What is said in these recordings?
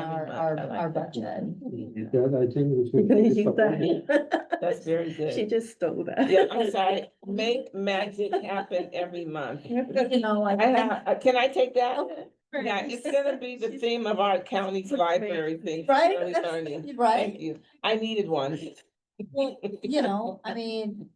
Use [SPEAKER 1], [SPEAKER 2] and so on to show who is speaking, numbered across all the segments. [SPEAKER 1] our,
[SPEAKER 2] I like
[SPEAKER 1] our
[SPEAKER 2] that.
[SPEAKER 1] budget.
[SPEAKER 3] That I think was.
[SPEAKER 4] You're gonna use that.
[SPEAKER 2] Mm-hmm. That's very
[SPEAKER 4] She
[SPEAKER 2] good.
[SPEAKER 4] just stole that.
[SPEAKER 2] Yeah, I'm sorry. Make magic happen every month.
[SPEAKER 1] You know, like.
[SPEAKER 2] I have, uh, can I take that? Yeah,
[SPEAKER 1] Right,
[SPEAKER 2] it's gonna be the theme of our county's library thing. for early learning. Thank
[SPEAKER 1] right,
[SPEAKER 2] you. I needed one.
[SPEAKER 1] you know, I mean,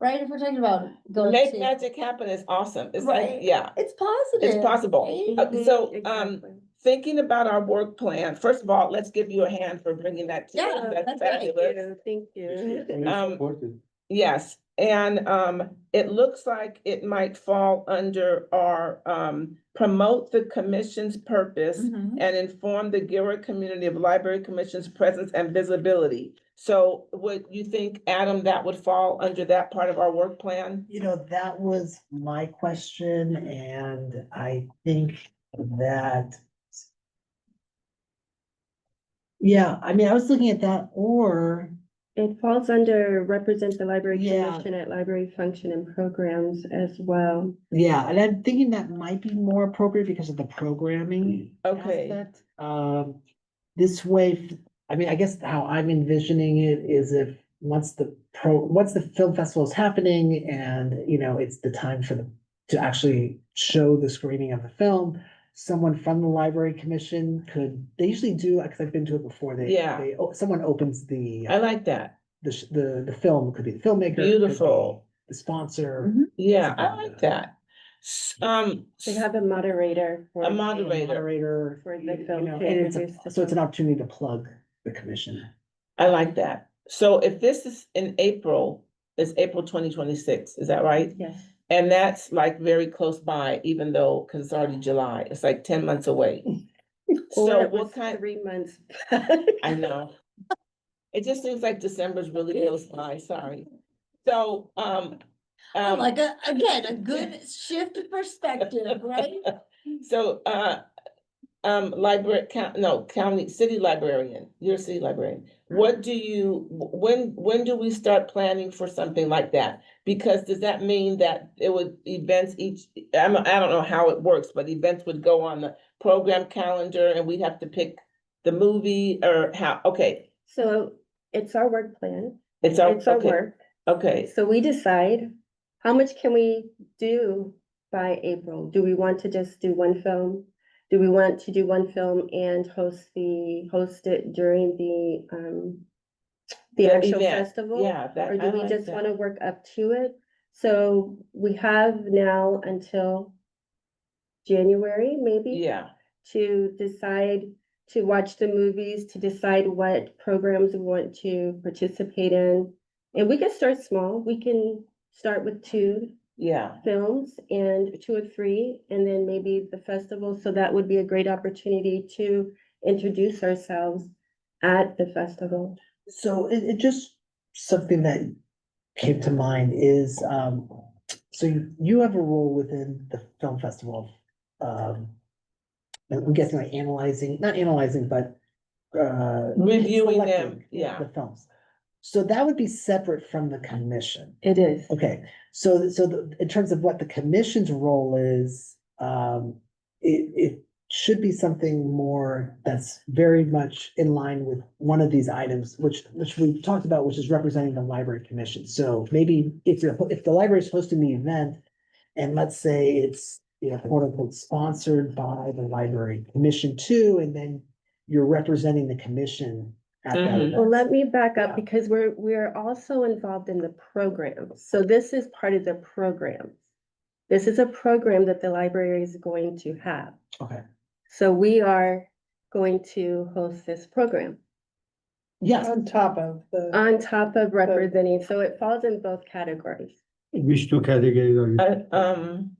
[SPEAKER 1] right, if we're talking about going
[SPEAKER 2] Make
[SPEAKER 1] to,
[SPEAKER 2] magic happen is awesome. It's like,
[SPEAKER 1] Right.
[SPEAKER 2] yeah,
[SPEAKER 1] it's positive.
[SPEAKER 2] it's possible.
[SPEAKER 1] right?
[SPEAKER 2] Uh, So, um, thinking about our work plan, first of all, let's give you a hand for bringing that. to us.
[SPEAKER 1] Yeah,
[SPEAKER 2] That's
[SPEAKER 1] that's right.
[SPEAKER 2] fabulous.
[SPEAKER 4] Thank you.
[SPEAKER 2] Um, Yes, and um, it looks like it might fall under our um, promote the commission's purpose
[SPEAKER 1] Mhm.
[SPEAKER 2] and inform the Gilroy community of library commission's presence and visibility. So would you think, Adam, that would fall under that part of our work plan?
[SPEAKER 5] You know, that was my question and I think that. Yeah, I mean, I was looking at that or,
[SPEAKER 4] It falls under represent the library
[SPEAKER 5] Yeah.
[SPEAKER 4] commission at library function and programs as well.
[SPEAKER 5] yeah, and I'm thinking that might be more appropriate because of the programming.
[SPEAKER 2] Okay.
[SPEAKER 5] aspect. Um, this way, f- I mean, I guess how I'm envisioning it is if, once the pro, once the film festival is happening and, you know, it's the time for the, to actually show the screening of the film, someone from the library commission could, they usually do, because I've been to it before, they,
[SPEAKER 2] Yeah. Uh
[SPEAKER 5] they, oh, someone opens the, uh,
[SPEAKER 2] I like that.
[SPEAKER 5] the, sh- the, the film, could be the filmmaker. could be
[SPEAKER 2] Beautiful. Mm-hmm.
[SPEAKER 5] The sponsor.
[SPEAKER 1] Mhm.
[SPEAKER 2] Yeah, I like that. S- Um,
[SPEAKER 4] They have a moderator. for-
[SPEAKER 2] a
[SPEAKER 5] and
[SPEAKER 2] moderator.
[SPEAKER 5] Moderator.
[SPEAKER 4] For the
[SPEAKER 5] you know,
[SPEAKER 4] film to
[SPEAKER 5] and it's a-
[SPEAKER 4] introduce the
[SPEAKER 5] So it's an
[SPEAKER 4] film.
[SPEAKER 5] opportunity to plug the commission.
[SPEAKER 2] I like that. So if this is in April, it's April twenty twenty-six, is that right?
[SPEAKER 4] Yes.
[SPEAKER 2] And that's like very close by, even though, cause it's already July, it's like ten months away.
[SPEAKER 4] Or
[SPEAKER 2] So
[SPEAKER 4] it was
[SPEAKER 2] what kind,
[SPEAKER 4] Three months.
[SPEAKER 2] I know. It just seems like December's really close by, sorry. So, um.
[SPEAKER 1] Oh,
[SPEAKER 2] um,
[SPEAKER 1] Like, a- again, a good shift of perspective, right?
[SPEAKER 2] So, uh, um, library, coun- no, county, city librarian, you're a city librarian. What do you, wh- when, when do we start planning for something like that? Because does that mean that it would, events each, I'm, I don't know how it works, but events would go on the program calendar and we'd have to pick the movie or how, okay,
[SPEAKER 4] So it's our work plan.
[SPEAKER 2] it's our,
[SPEAKER 4] It's our
[SPEAKER 2] okay,
[SPEAKER 4] work.
[SPEAKER 2] okay.
[SPEAKER 4] So we decide, how much can we do by April? Do we want to just do one film? Do we want to do one film and host the, host it during the, um, the
[SPEAKER 2] The
[SPEAKER 4] actual
[SPEAKER 2] event,
[SPEAKER 4] festival?
[SPEAKER 2] Yeah, that,
[SPEAKER 4] Or
[SPEAKER 2] I
[SPEAKER 4] do we
[SPEAKER 2] like
[SPEAKER 4] just
[SPEAKER 2] that.
[SPEAKER 4] want to work up to it? So we have now until January, maybe,
[SPEAKER 2] Yeah,
[SPEAKER 4] to decide, to watch the movies, to decide what programs we want to participate in. And we can start small. We can start with two
[SPEAKER 2] yeah,
[SPEAKER 4] films and two or three, and then maybe the festival. So that would be a great opportunity to introduce ourselves at the festival.
[SPEAKER 5] So it, it just, something that came to mind is, um, so you- you have a role within the film festival. Um, I'm guessing like analyzing, not analyzing, but, uh.
[SPEAKER 2] reviewing
[SPEAKER 5] selecting
[SPEAKER 2] them, yeah.
[SPEAKER 5] The films. So that would be separate from the commission.
[SPEAKER 4] It is.
[SPEAKER 5] Okay, so, so the- in terms of what the commission's role is, um, it, it should be something more that's very much in line with one of these items, which, which we talked about, which is representing the library commission. So maybe if you're, if the library is hosting the event, and let's say it's, you know, quote unquote, sponsored by the library commission too, and then you're representing the commission at that
[SPEAKER 2] Mhm.
[SPEAKER 5] event.
[SPEAKER 4] Well, let me back
[SPEAKER 5] Yeah.
[SPEAKER 4] up because we're, we're also involved in the program. So this is part of the program. This is a program that the library is going to have.
[SPEAKER 5] Okay.
[SPEAKER 4] So we are going to host this program
[SPEAKER 5] Yes,
[SPEAKER 6] top of the.
[SPEAKER 4] on top of representing, so it falls in both categories.
[SPEAKER 3] Which two categories are you?
[SPEAKER 2] Uh, um.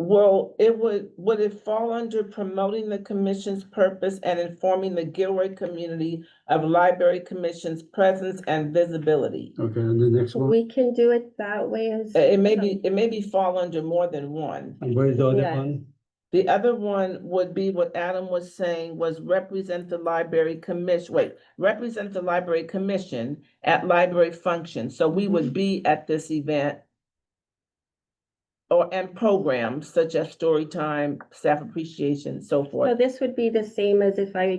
[SPEAKER 2] Well, it would, would it fall under promoting the commission's purpose and informing the Gilroy community of library commission's presence and visibility?
[SPEAKER 3] Okay, and the next one,
[SPEAKER 4] We can do it that way as.
[SPEAKER 5] Eh,
[SPEAKER 2] Uh, It may be, it may be fall under more than one.
[SPEAKER 3] and where is the other
[SPEAKER 4] Yeah.
[SPEAKER 3] one?
[SPEAKER 2] The other one would be what Adam was saying was represent the library commission, wait, represent the library commission at library function. So we would be at this event or, and programs such as story time, staff appreciation, so forth.
[SPEAKER 4] So this would be the same as if I